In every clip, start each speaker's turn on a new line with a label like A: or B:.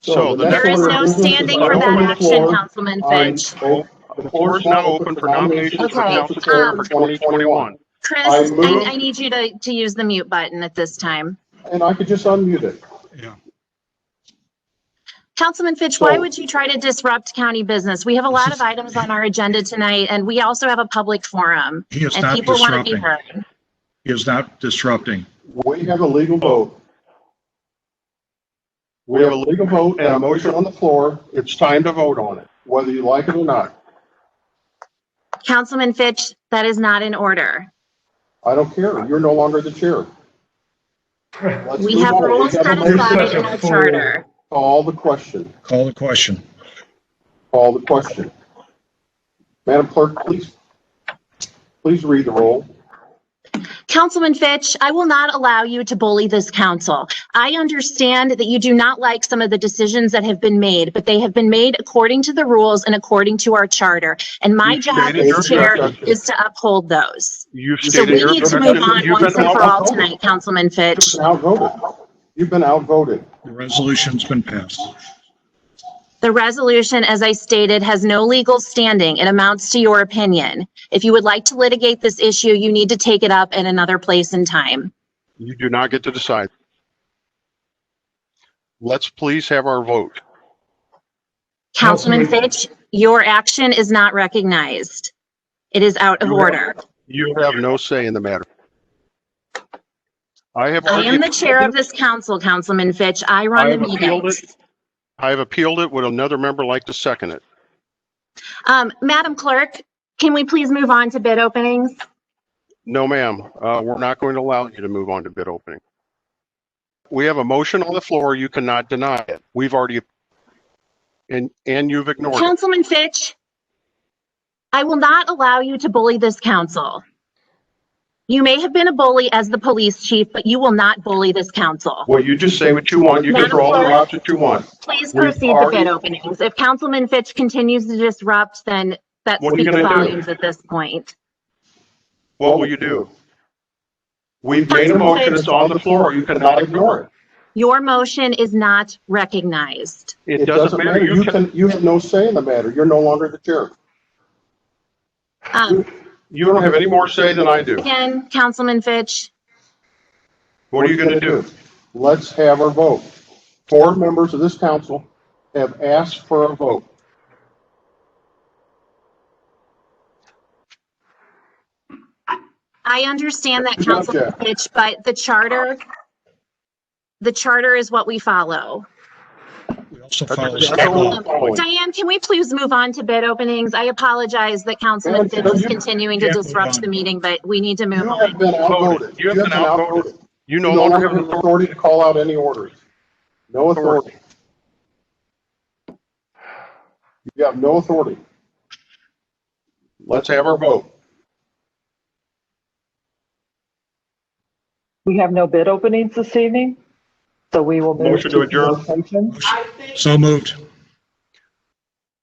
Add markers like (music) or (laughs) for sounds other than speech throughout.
A: So the
B: There
A: next
B: is
A: order
B: no
A: of business
B: standing
A: is
B: for
A: an
B: that
A: open
B: action,
A: floor
B: Councilman
A: on-
B: Fitch.
A: oh, The floor is now open for nominations for
B: Okay,
A: council chair
B: um,
A: for 2021.
B: Chris,
A: I
B: I,
A: move-
B: I need you to, to use the mute button at this time.
A: And I could just unmute it.
B: Councilman Fitch, why
A: So-
B: would you try to disrupt county business? We have a
A: (laughs)
B: lot of items on our agenda tonight, and we also have a public forum,
C: He is
B: and
C: not
B: people want to be
C: disrupting.
B: heard.
C: He is not disrupting.
A: We have a legal vote. We have a legal vote and a motion on the floor. It's time to vote on it, whether you like it or not.
B: Councilman Fitch, that is not in order.
A: I don't care. You're no longer the chair. Let's
B: We
A: move
B: have
A: on. We
B: rules
A: have a
B: set
A: motion.
B: aside in our charter.
A: Call the question.
C: Call the question.
A: Call the question. Madam Clerk, please, please read the roll.
B: Councilman Fitch, I will not allow you to bully this council. I understand that you do not like some of the decisions that have been made, but they have been made according to the rules and according to our charter. And my
A: You
B: job
A: stated
B: as
A: your
B: chair
A: objection.
B: is to uphold those.
A: You've
B: So
A: stated
B: we
A: your
B: need to
A: objection.
B: move on
A: You've
B: once
A: been
B: and for all
A: outvoted.
B: tonight, Councilman
A: You've
B: Fitch.
A: been outvoted. You've been outvoted.
C: The resolution's been passed.
B: The resolution, as I stated, has no legal standing. It amounts to your opinion. If you would like to litigate this issue, you need to take it up in another place and time.
D: You do not get to decide. Let's please have our vote.
B: Councilman Fitch, your action is not recognized. It is out of
D: You have-
B: order.
D: You have no say in the matter. I have
B: I am
D: argued,
B: the chair of this council, Councilman Fitch. I run
D: I have
B: the
D: appealed
B: meetings.
D: I have appealed it. Would another member like to second it?
B: Um, Madam Clerk, can we please move on to bid openings?
D: No, ma'am. Uh, we're not going to allow you to move on to bid opening. We have a motion on the floor. You cannot deny it. We've already and, and you've ignored it.
B: Councilman Fitch, I will not allow you to bully this council. You may have been a bully as the police chief, but you will not bully this council.
D: Well, you just say what you want. You can throw all the rocks that you want.
B: Please
D: We've
B: proceed to
D: already-
B: bid openings. If Councilman Fitch continues to disrupt, then that
D: What are you
B: speaks
D: gonna do?
B: volumes at this point.
D: What will you do? We've made a motion. It's on the floor. You cannot ignore it.
B: Your motion is not recognized.
D: It doesn't matter. You can,
A: you have no say in the matter. You're no longer the chair.
B: Um,
D: you don't have any more say than I do.
B: Again, Councilman Fitch,
D: What are you gonna do?
A: Let's have our vote. Four members of this council have asked for a vote.
B: I understand that,
A: Good job,
B: Councilman
A: Jack.
B: Fitch, but the charter, the charter is what we follow. Um,
C: We also
D: That's-
C: follow
D: that's
C: state
D: all
C: law.
D: I'm following.
B: Diane, can we please move on to bid openings? I apologize that Councilman
A: Yeah,
B: Fitch is
A: you-
B: continuing to
C: Yeah, move
B: disrupt
C: on.
B: the meeting, but we need to move
A: You
B: on.
A: have been outvoted.
D: You have been outvoted. You
A: You
D: no
A: no
D: longer
A: longer
D: have
A: have
D: an
A: authority to call out any orders. No authority. You have no authority.
D: Let's have our vote.
E: We have no bid openings this evening, so we will move
D: Motion to adjourn.
E: Motion.
C: So moved.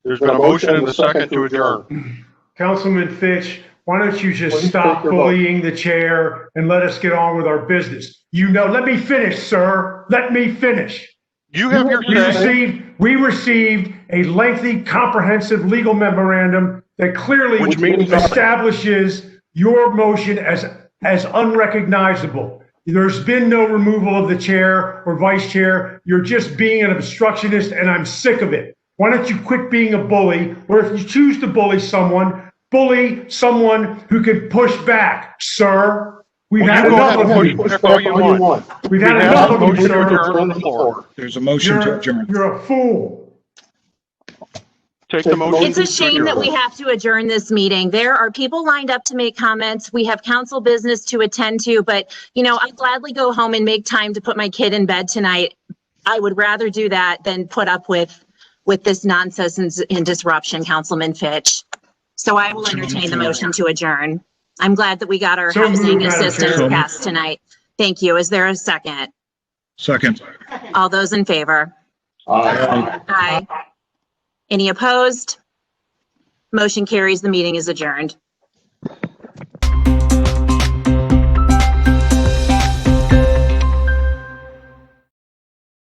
D: There's been a motion and a second to adjourn.
F: Councilman Fitch, why don't you
A: Please
F: just
A: take
F: stop
A: your vote.
F: bullying the chair and let us get on with our business? You know, let me finish, sir. Let me finish.
D: You have your
F: We
D: say.
F: received, we received a lengthy, comprehensive legal memorandum that clearly
D: Which means-
F: establishes your motion as, as unrecognizable. There's been no removal of the chair or vice chair. You're just being an obstructionist and I'm sick of it. Why don't you quit being a bully? Or if you choose to bully someone, bully someone who can push back, sir. We've
D: Well,
F: had
D: you go
F: enough
D: ahead and
F: of
D: push
F: you.
D: back all you want.
F: We've had
D: We have
F: enough
D: a
F: of you,
D: motion to
F: sir.
D: adjourn on the floor.
C: There's a motion to
F: You're,
C: adjourn.
F: you're a fool.
D: Take the motion.
B: It's a shame that we have to adjourn this meeting. There are people lined up to make comments. We have council business to attend to, but you know, I gladly go home and make time to put my kid in bed tonight. I would rather do that than put up with, with this nonsense and and disruption, Councilman Fitch. So I will entertain the motion to adjourn. I'm glad that we got our
F: So moved,
B: housing
F: Madam Chair.
B: assistance passed tonight. Thank you. Is there a second?
C: Second.
B: All those in favor? Aye. Any opposed? Motion carries. The meeting is adjourned.